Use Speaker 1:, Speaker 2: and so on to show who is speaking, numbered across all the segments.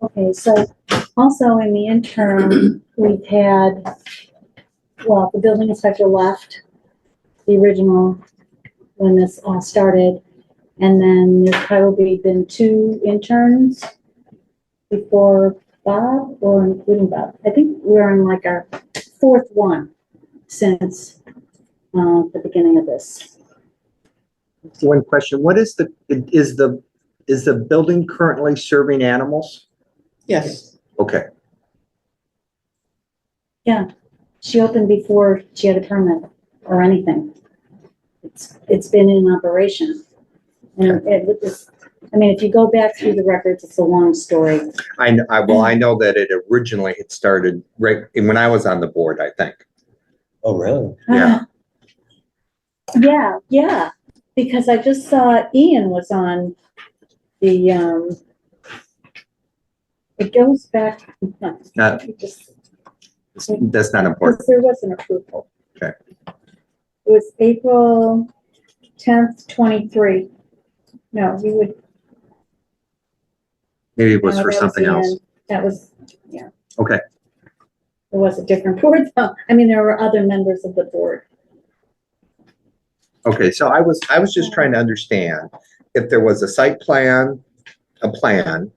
Speaker 1: Okay, so also in the interim, we've had, well, the building inspector left the original when this all started. And then there's probably been two interns before Bob or including Bob. I think we're on like our fourth one since, uh, the beginning of this.
Speaker 2: One question, what is the, is the, is the building currently serving animals?
Speaker 3: Yes,
Speaker 2: Okay,
Speaker 1: She opened before she had a permit or anything. It's, it's been in operation. And it was, just- I mean, if you go back through the records, it's a long story.
Speaker 2: I, kn- I, well, I know that it originally had started right, when I was on the board, I think.
Speaker 4: Oh, really?
Speaker 2: Yeah.
Speaker 1: Yeah, yeah, because I just saw Ian was on the, um, it goes back, no,
Speaker 2: Not,
Speaker 1: it just,
Speaker 2: that's not important.
Speaker 1: because there was an approval.
Speaker 2: Okay.
Speaker 1: It was April tenth, twenty-three. No, you would
Speaker 2: Maybe it was
Speaker 1: No,
Speaker 2: for
Speaker 1: that
Speaker 2: something
Speaker 1: the
Speaker 2: else.
Speaker 1: end. That was, yeah.
Speaker 2: Okay.
Speaker 1: It was a different board, though. I mean, there were other members of the board.
Speaker 2: Okay, so I was, I was just trying to understand if there was a site plan, a plan.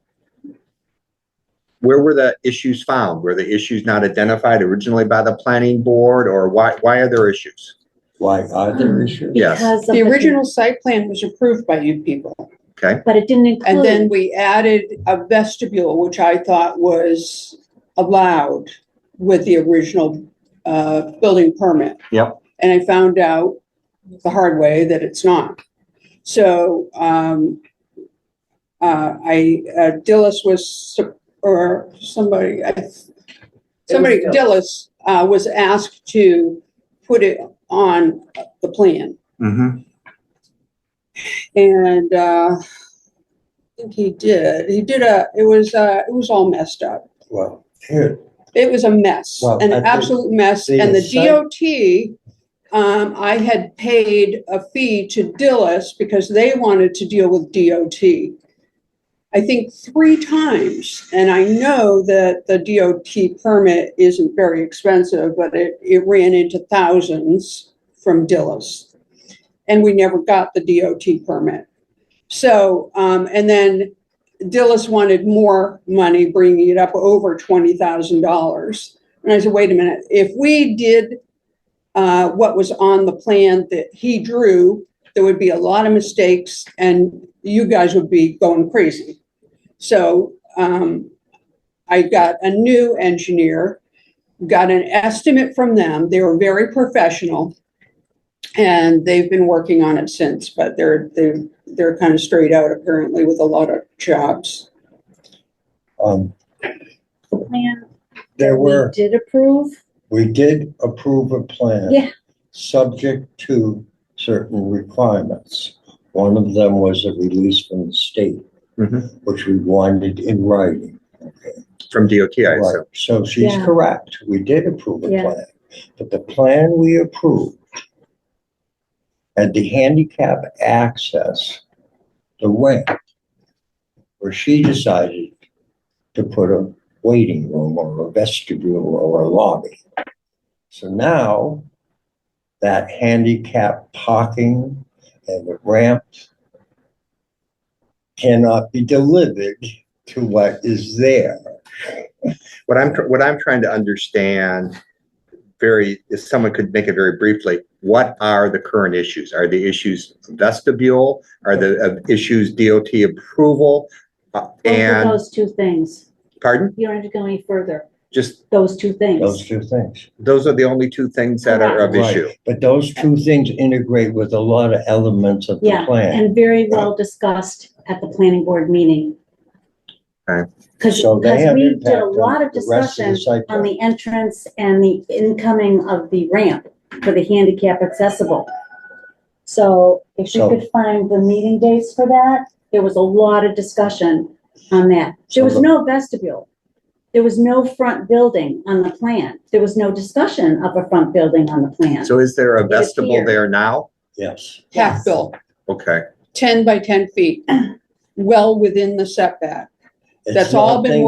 Speaker 2: Where were the issues found? Were the issues not identified originally by the planning board or why, why are there issues?
Speaker 4: Why are there issues?
Speaker 2: Yes.
Speaker 1: Because of
Speaker 3: the original site plan was approved by you people.
Speaker 1: But it didn't include.
Speaker 3: And then we added a vestibule, which I thought was allowed with the original uh, building permit.
Speaker 2: Yep.
Speaker 3: And I found out the hard way that it's not. So um, uh, I, uh, Dillis was, sup- or somebody, I- somebody, Dillis uh, was asked to put it on the plan.
Speaker 2: Mm-hmm.
Speaker 3: And uh, I think he did. He did a. It was uh, it was all messed up.
Speaker 4: Well, here,
Speaker 3: It was a mess,
Speaker 4: Well,
Speaker 3: an
Speaker 4: I think
Speaker 3: absolute mess.
Speaker 4: the
Speaker 3: And
Speaker 4: site-
Speaker 3: the DOT, um, I had paid a fee to Dillis because they wanted to deal with DOT. I think three times, and I know that the DOT permit isn't very expensive, but it, it ran into thousands from Dillis. And we never got the DOT permit. So, um, and then Dillis wanted more money, bringing it up over twenty thousand dollars. And I said, wait a minute, if we did uh, what was on the plan that he drew, there would be a lot of mistakes and you guys would be going crazy. So um, I got a new engineer, got an estimate from them. They were very professional. And they've been working on it since, but they're, they're they're kind of straight out apparently with a lot of jobs.
Speaker 4: um,
Speaker 1: the plan
Speaker 4: there
Speaker 1: that we
Speaker 4: were,
Speaker 1: Did approve.
Speaker 4: we did approve a plan.
Speaker 1: Yeah.
Speaker 4: Subject to certain requirements. One of them was a release from the state,
Speaker 2: Mhm.
Speaker 4: which we wanted in writing. Okay.
Speaker 2: From DOT, I
Speaker 4: Right.
Speaker 2: assume.
Speaker 4: So she's
Speaker 1: Yeah.
Speaker 4: correct. We did approve a
Speaker 1: Yeah.
Speaker 4: plan, but the plan we approved had the handicap access, the ramp, where she decided to put a waiting room or a vestibule or a lobby. So now that handicap parking and the ramp cannot be delivered to what is there.
Speaker 2: What I'm, tr- what I'm trying to understand very, if someone could make it very briefly, what are the current issues? Are the issues vestibule? Are the uh, issues DOT approval? Uh,
Speaker 1: Both of
Speaker 2: And,
Speaker 1: those two things.
Speaker 2: pardon?
Speaker 1: You don't have to go any further.
Speaker 2: Just,
Speaker 1: Those two
Speaker 4: Those
Speaker 1: things.
Speaker 4: two things.
Speaker 2: those are the only two things that are of
Speaker 4: Right.
Speaker 2: issue.
Speaker 4: But those two things integrate with a lot of elements of the
Speaker 1: Yeah,
Speaker 4: plan.
Speaker 1: and very well discussed at the planning board meeting.
Speaker 2: Okay.
Speaker 1: Because,
Speaker 4: So they have
Speaker 1: we did
Speaker 4: impact
Speaker 1: a
Speaker 4: on
Speaker 1: lot of
Speaker 4: the rest of the
Speaker 1: discussion
Speaker 4: site
Speaker 1: on
Speaker 4: plan.
Speaker 1: the entrance and the incoming of the ramp for the handicap accessible. So if you
Speaker 4: So-
Speaker 1: could find the meeting dates for that, there was a lot of discussion on that. There
Speaker 4: So
Speaker 1: was
Speaker 4: the-
Speaker 1: no vestibule. There was no front building on the plan. There was no discussion of a front building on the plan.
Speaker 2: So is there a
Speaker 1: It is
Speaker 2: vestibule
Speaker 1: here.
Speaker 2: there now?
Speaker 4: Yes.
Speaker 1: Yes.
Speaker 3: Half built,
Speaker 2: Okay,
Speaker 3: ten by ten feet, well within the setback.
Speaker 4: It's
Speaker 3: That's all been
Speaker 4: nothing